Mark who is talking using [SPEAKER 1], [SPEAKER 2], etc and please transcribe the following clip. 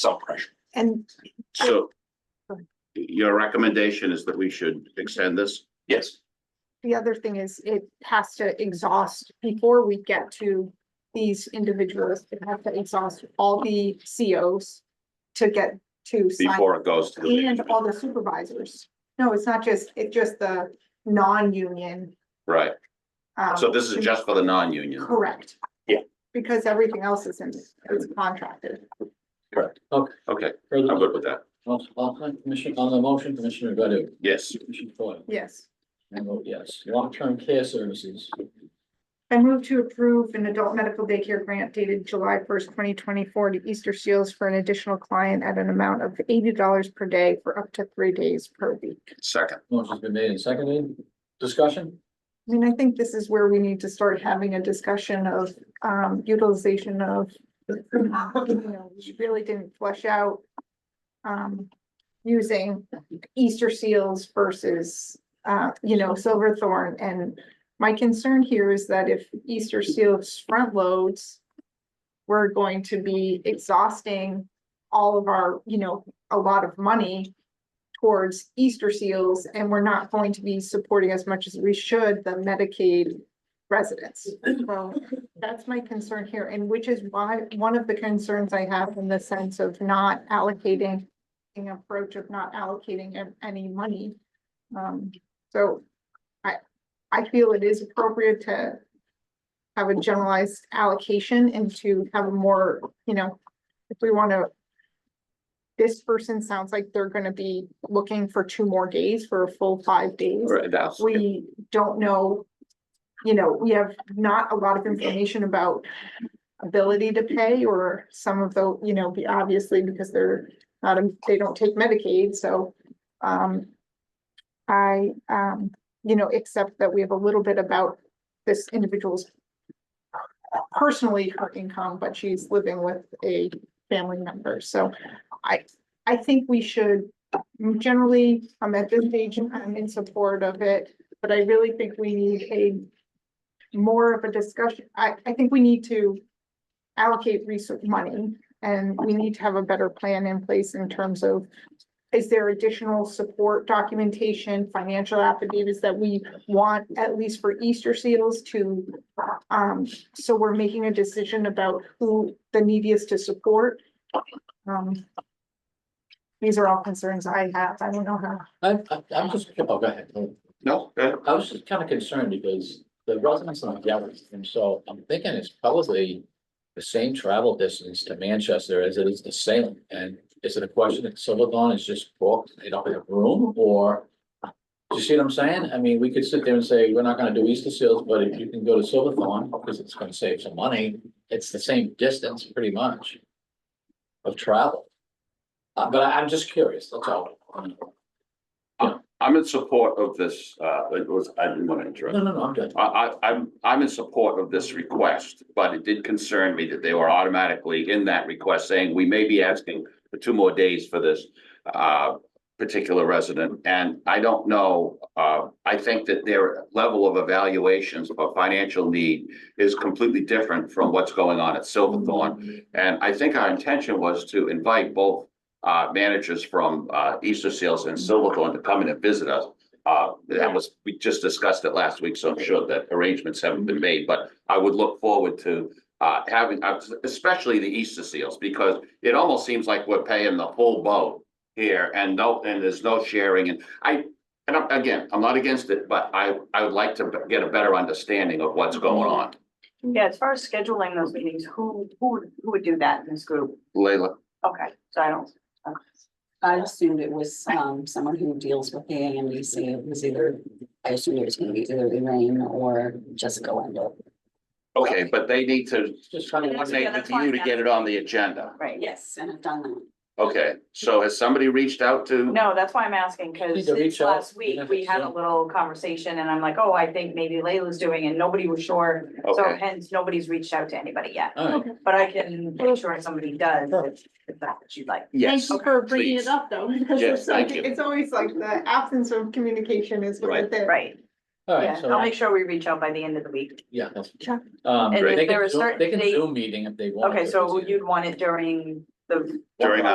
[SPEAKER 1] some pressure.
[SPEAKER 2] And
[SPEAKER 3] So
[SPEAKER 2] Go ahead.
[SPEAKER 3] your recommendation is that we should extend this?
[SPEAKER 1] Yes,
[SPEAKER 2] the other thing is it has to exhaust before we get to these individuals. It has to exhaust all the COs to get to sign
[SPEAKER 3] Before it goes to
[SPEAKER 2] and
[SPEAKER 3] the,
[SPEAKER 2] all the supervisors. No, it's not just, it's just the non-union.
[SPEAKER 3] right,
[SPEAKER 2] um,
[SPEAKER 3] so this is just for the non-union.
[SPEAKER 2] Correct.
[SPEAKER 1] Yeah.
[SPEAKER 2] Because everything else is in, is contracted.
[SPEAKER 3] Okay,
[SPEAKER 4] Further,
[SPEAKER 3] I'm good with that.
[SPEAKER 4] on, on, Commissioner, on the motion, Commissioner Godu,
[SPEAKER 3] Yes,
[SPEAKER 4] Commissioner Foil,
[SPEAKER 2] Yes.
[SPEAKER 4] I vote yes. Long-term care services,
[SPEAKER 2] I move to approve an adult medical daycare grant dated July first, twenty twenty-four to Easter Seals for an additional client at an amount of eighty dollars per day for up to three days per week.
[SPEAKER 3] second,
[SPEAKER 4] motion's been made and seconded. Discussion?
[SPEAKER 2] I mean, I think this is where we need to start having a discussion of um utilization of. you know, We really didn't flesh out. Um, using Easter seals versus uh, you know, Silverthorn and. My concern here is that if Easter seals front loads. We're going to be exhausting all of our, you know, a lot of money towards Easter seals, and we're not going to be supporting as much as we should the Medicaid residents. So that's my concern here, and which is why, one of the concerns I have in the sense of not allocating an approach of not allocating a- any money. Um, so I, I feel it is appropriate to have a generalized allocation and to have a more, you know, if we want to this person sounds like they're gonna be looking for two more days for a full five days.
[SPEAKER 3] All right, that's,
[SPEAKER 2] We don't know, you know, we have not a lot of information about ability to pay or some of the, you know, be- obviously because they're not, they don't take Medicaid, so um I um, you know, except that we have a little bit about this individual's personally her income, but she's living with a family member, so I, I think we should generally, I'm at this stage, I'm in support of it, but I really think we need a more of a discussion, I, I think we need to allocate research money, and we need to have a better plan in place in terms of is there additional support documentation, financial affidavits that we want, at least for Easter seals to um, so we're making a decision about who the neediest to support. Um. These are all concerns I have. I don't know how.
[SPEAKER 4] I, I, I'm just, oh, go ahead.
[SPEAKER 3] no, uh,
[SPEAKER 4] I was just kind of concerned because the residents on Galveston, and so I'm thinking it's probably the same travel distance to Manchester as it is to Salem. And is it a question that Silverthorne is just booked, they don't have room, or? Do you see what I'm saying? I mean, we could sit there and say, we're not gonna do Easter Seals, but if you can go to Silverthorne, because it's gonna save some money, it's the same distance pretty much of travel. Uh, but I- I'm just curious, that's all.
[SPEAKER 3] I'm in support of this, uh, it was, I didn't want to interrupt.
[SPEAKER 4] No, no, no, I'm good.
[SPEAKER 3] I, I, I'm, I'm in support of this request, but it did concern me that they were automatically in that request saying, we may be asking for two more days for this uh, particular resident, and I don't know, uh, I think that their level of evaluations of a financial need is completely different from what's going on at Silverthorne. And I think our intention was to invite both uh, managers from uh, Easter Sales and Silverthorne to come in and visit us. Uh, that was, we just discussed it last week, so I'm sure that arrangements haven't been made, but I would look forward to uh, having, uh, especially the Easter seals, because it almost seems like we're paying the full boat here and no, and there's no sharing and I, and I'm- again, I'm not against it, but I, I would like to get a better understanding of what's going on.
[SPEAKER 5] Yeah, as far as scheduling those meetings, who, who, would who would do that in this group?
[SPEAKER 3] Leila,
[SPEAKER 5] Okay, so I don't,
[SPEAKER 6] I assumed it was um someone who deals with the AMDC. It was either, I assumed it was gonna be either Elaine or Jessica Wendell.
[SPEAKER 3] okay, but they need to
[SPEAKER 4] Just kind of wondering.
[SPEAKER 3] coordinate with you to get it on the agenda.
[SPEAKER 5] right, yeah.
[SPEAKER 6] Yes, and I've done that.
[SPEAKER 3] Okay, so has somebody reached out to?
[SPEAKER 5] No, that's why I'm asking,
[SPEAKER 4] Need
[SPEAKER 5] because
[SPEAKER 4] to reach out,
[SPEAKER 5] last week,
[SPEAKER 4] even if
[SPEAKER 5] we
[SPEAKER 4] it's
[SPEAKER 5] had a
[SPEAKER 4] Zoom.
[SPEAKER 5] little conversation and I'm like, oh, I think maybe Layla's doing and nobody was sure. So
[SPEAKER 3] Okay.
[SPEAKER 5] hence, nobody's reached out to anybody yet,
[SPEAKER 4] All right.
[SPEAKER 5] but I can make sure somebody does if, if that's what you'd like.
[SPEAKER 3] Yes.
[SPEAKER 2] Thank you for bringing
[SPEAKER 3] please.
[SPEAKER 2] it up though. because
[SPEAKER 3] Yes,
[SPEAKER 2] it's like-
[SPEAKER 3] thank you.
[SPEAKER 2] It's always like the absence of communication is what
[SPEAKER 3] Right.
[SPEAKER 2] it is.
[SPEAKER 5] Right,
[SPEAKER 4] All right,
[SPEAKER 5] yeah,
[SPEAKER 4] so.
[SPEAKER 5] I'll make sure we reach out by the end of the week.
[SPEAKER 4] Yeah. that's-
[SPEAKER 2] Sure.
[SPEAKER 4] Um,
[SPEAKER 5] And
[SPEAKER 4] they
[SPEAKER 5] if there
[SPEAKER 4] can
[SPEAKER 5] are
[SPEAKER 4] Zoom, they
[SPEAKER 5] certain
[SPEAKER 4] can
[SPEAKER 5] date-
[SPEAKER 4] Zoom meeting if they want.
[SPEAKER 5] Okay, so you'd want it during the.
[SPEAKER 3] During